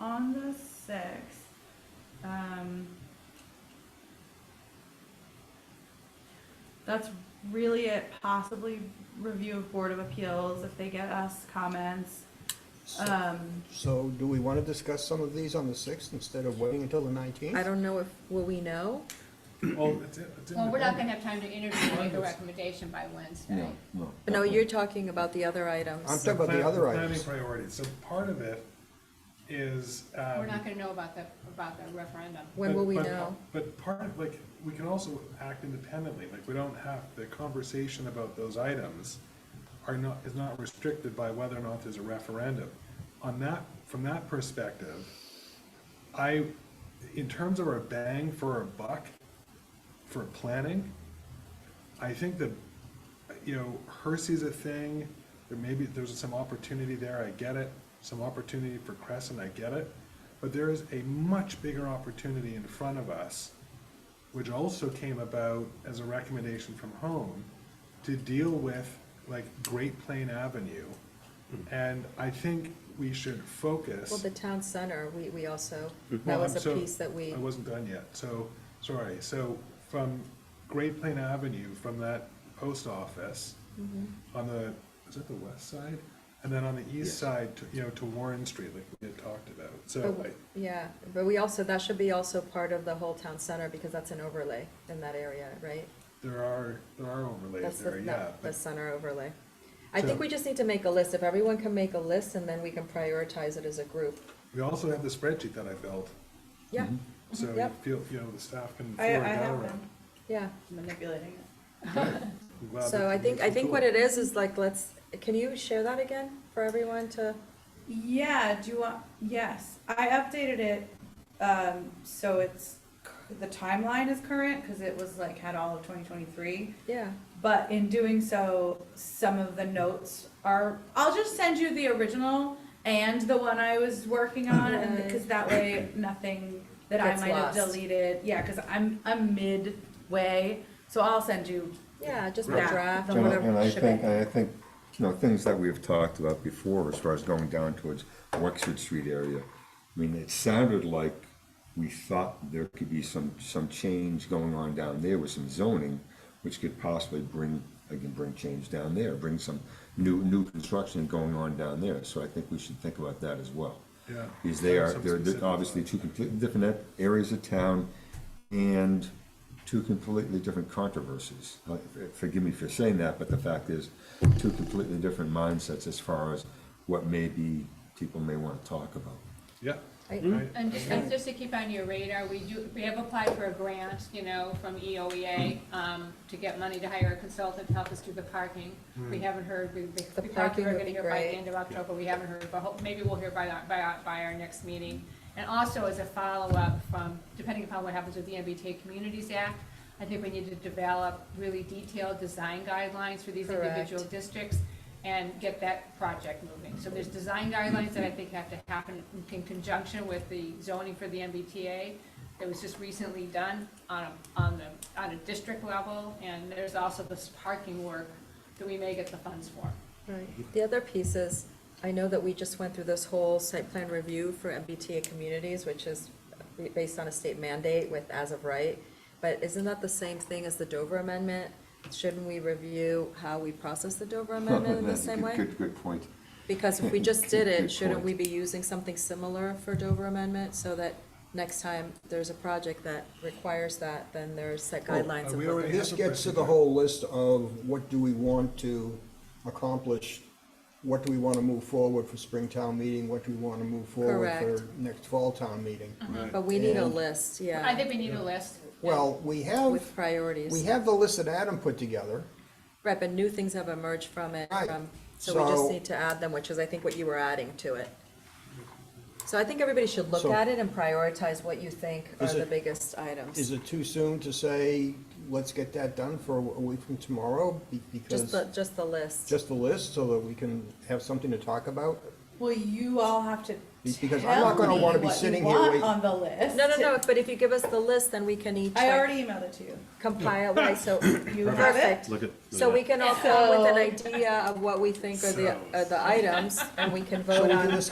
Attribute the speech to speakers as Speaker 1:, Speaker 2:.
Speaker 1: on the sixth, um, that's really it, possibly review of Board of Appeals if they get us comments.
Speaker 2: So-
Speaker 1: Um,
Speaker 2: So do we want to discuss some of these on the 6th instead of waiting until the 19th?
Speaker 3: I don't know if, will we know?
Speaker 4: Well, it's, it's in
Speaker 5: Well, we're
Speaker 4: the
Speaker 5: not
Speaker 4: packet.
Speaker 5: gonna have time to interview and make a
Speaker 4: Wonders.
Speaker 5: recommendation by Wednesday.
Speaker 6: No, no.
Speaker 3: But no, you're
Speaker 6: definitely.
Speaker 3: talking about the other
Speaker 2: I'm
Speaker 3: items.
Speaker 2: talking about the other
Speaker 4: Plan-
Speaker 2: items.
Speaker 4: Planning priorities, so part of it is, um.
Speaker 5: We're not gonna know about the, about the referendum.
Speaker 3: When
Speaker 4: but-
Speaker 3: will we
Speaker 4: but-
Speaker 3: know?
Speaker 4: But part of, like, we can also act independently, like, we don't have, the conversation about those items are not, is not restricted by whether or not there's a referendum. On that, from that perspective, I, in terms of our bang for our buck, for planning, I think that, you know, Hersey's a thing, there may be, there's some opportunity there, I get it, some opportunity for Crescent, I get it, but there is a much bigger opportunity in front of us, which also came about as a recommendation from home, to deal with, like, Great Plain Avenue. And I think we should focus.
Speaker 3: Well, the town center, we, we also, that
Speaker 4: Well,
Speaker 3: was
Speaker 4: I'm
Speaker 3: a
Speaker 4: so-
Speaker 3: piece that we,
Speaker 4: I wasn't done yet, so, sorry, so from Great Plain Avenue, from that post office,
Speaker 3: Mm-hmm.
Speaker 4: on the, is it the west side? And then on the
Speaker 6: Yes.
Speaker 4: east side, to- you know, to Warren Street, like we had talked about, so,
Speaker 3: but-
Speaker 4: I-
Speaker 3: yeah, but we also, that should be also part of the whole town center because that's an overlay in that area, right?
Speaker 4: there are, there are overlays
Speaker 3: That's the,
Speaker 4: there, yeah,
Speaker 3: that- the
Speaker 4: but,
Speaker 3: center overlay. I
Speaker 4: So-
Speaker 3: think we just need to make a list. If everyone can make a list and then we can prioritize it as a group.
Speaker 4: we also have the spreadsheet that I filled,
Speaker 3: Yeah,
Speaker 4: so you
Speaker 3: Mm-hmm, Yep.
Speaker 4: feel, you know, the staff can
Speaker 1: I, I
Speaker 4: forward that
Speaker 1: have
Speaker 4: around.
Speaker 1: been
Speaker 3: yeah.
Speaker 1: manipulating it.
Speaker 4: I'm glad
Speaker 3: So
Speaker 4: that
Speaker 3: I
Speaker 4: you
Speaker 3: think,
Speaker 4: did
Speaker 3: I
Speaker 4: some
Speaker 3: think what
Speaker 4: cool-
Speaker 3: it is, is like, let's, can you share that again for everyone to?
Speaker 1: Yeah, do you want, yes, I updated it, um, so it's, c- the timeline is current, cause it was like, had all of twenty twenty-three.
Speaker 3: Yeah,
Speaker 1: But in doing so, some of the notes are, I'll just send you the original and the one I was working on, and, because that way, nothing that I
Speaker 3: Gets
Speaker 1: might have
Speaker 3: lost.
Speaker 1: deleted, yeah, because I'm, I'm midway, so I'll send you.
Speaker 3: yeah, just the
Speaker 1: Right.
Speaker 3: draft.
Speaker 1: The
Speaker 6: And I-
Speaker 1: whatever
Speaker 6: and I
Speaker 1: shebang.
Speaker 6: think, and I think, you know, things that we've talked about before as far as going down towards Wexford Street area. I mean, it sounded like we thought there could be some, some change going on down there with some zoning, which could possibly bring, again, bring change down there, bring some new, new construction going on down there. So I think we should think about that as well.
Speaker 4: Yeah.
Speaker 6: Because they are,
Speaker 4: Some
Speaker 6: they're they're
Speaker 4: specific-
Speaker 6: obviously two completely different e, areas of town and two completely different controversies. Like, Forgive me for saying that, but the fact is, two completely different mindsets as far as what maybe people may want to talk about.
Speaker 4: Yeah.
Speaker 3: I-
Speaker 4: right.
Speaker 5: And just, and just to keep on your radar, we do, we have applied for a grant, you know, from E EOEA, um, to get money to hire a consultant to help us do the parking. We haven't heard, we,
Speaker 3: The
Speaker 5: we thought we
Speaker 3: parking
Speaker 5: were
Speaker 3: would
Speaker 5: gonna
Speaker 3: be
Speaker 5: hear by the
Speaker 3: great.
Speaker 5: end of October, we haven't heard, but hope, maybe we'll hear by, our- by, our- by our next meeting. And also as a follow-up from, depending upon what happens with the MBTA Communities Act, I think we need to develop really detailed design guidelines for these individual
Speaker 3: Correct.
Speaker 5: districts and get that project moving. So there's design guidelines that I think have to happen in conjunction with the zoning for the MBTA that was just recently done on, a- on the, on a district level. And there's also this parking work that we may get the funds for.
Speaker 3: Right. The other piece is, I know that we just went through this whole site plan review for MBTA communities, which is based on a state mandate with as of right. But isn't that the same thing as the Dover Amendment? Shouldn't we review how we process the Dover Amendment in the
Speaker 6: That's a
Speaker 3: same
Speaker 6: good-
Speaker 3: way?
Speaker 6: Good, good point.
Speaker 3: Because if we just did it,
Speaker 6: Good
Speaker 3: shouldn't
Speaker 6: point.
Speaker 3: we be using something similar for Dover Amendment so that next time there's a project that requires that, then there's set
Speaker 2: Well,
Speaker 3: guidelines
Speaker 4: uh,
Speaker 3: of
Speaker 4: we
Speaker 3: what
Speaker 4: already-
Speaker 3: the-
Speaker 2: This gets to the whole list of what do we want to accomplish? What do we want to move forward for spring town meeting? What do we want to move forward for
Speaker 3: Correct. Mm-hmm.
Speaker 2: next fall town meeting?
Speaker 3: But we need a
Speaker 2: And-
Speaker 3: list,
Speaker 5: I
Speaker 3: yeah,
Speaker 5: think we need a list.
Speaker 2: Well, we
Speaker 3: with
Speaker 2: have,
Speaker 3: priorities.
Speaker 2: we have the list that Adam put together.
Speaker 3: Right, but new things have emerged from it,
Speaker 2: Right.
Speaker 3: from, so we just
Speaker 2: So-
Speaker 3: need to add them, which is, I think, what you were adding to it. So I think everybody should look
Speaker 2: So-
Speaker 3: at it and prioritize what you think are
Speaker 2: Is
Speaker 3: the
Speaker 2: it-
Speaker 3: biggest items.
Speaker 2: Is it too soon to say, let's get that done for a week from tomorrow? Be-
Speaker 3: Just
Speaker 2: Because,
Speaker 3: the, just the list.
Speaker 2: just the list so that we can have something to talk about?
Speaker 1: Well, you all have to
Speaker 2: Be- because I'm
Speaker 1: tell
Speaker 2: not gonna
Speaker 1: me
Speaker 2: wanna be
Speaker 1: what you
Speaker 2: sitting here
Speaker 1: want
Speaker 2: waiting.
Speaker 1: on the list.
Speaker 3: No, no, no, but if you give us the list, then we can each
Speaker 1: I
Speaker 3: like,
Speaker 1: already emailed it to you.
Speaker 3: compile, right, so.
Speaker 1: You have it?
Speaker 3: Perfect.
Speaker 7: Look at. look
Speaker 3: So
Speaker 7: at
Speaker 3: we
Speaker 7: that.
Speaker 3: can all come with an
Speaker 1: So-
Speaker 3: idea of what we think are the,
Speaker 4: So-
Speaker 3: are the items, and we can vote
Speaker 2: Shall
Speaker 3: on.
Speaker 2: we do this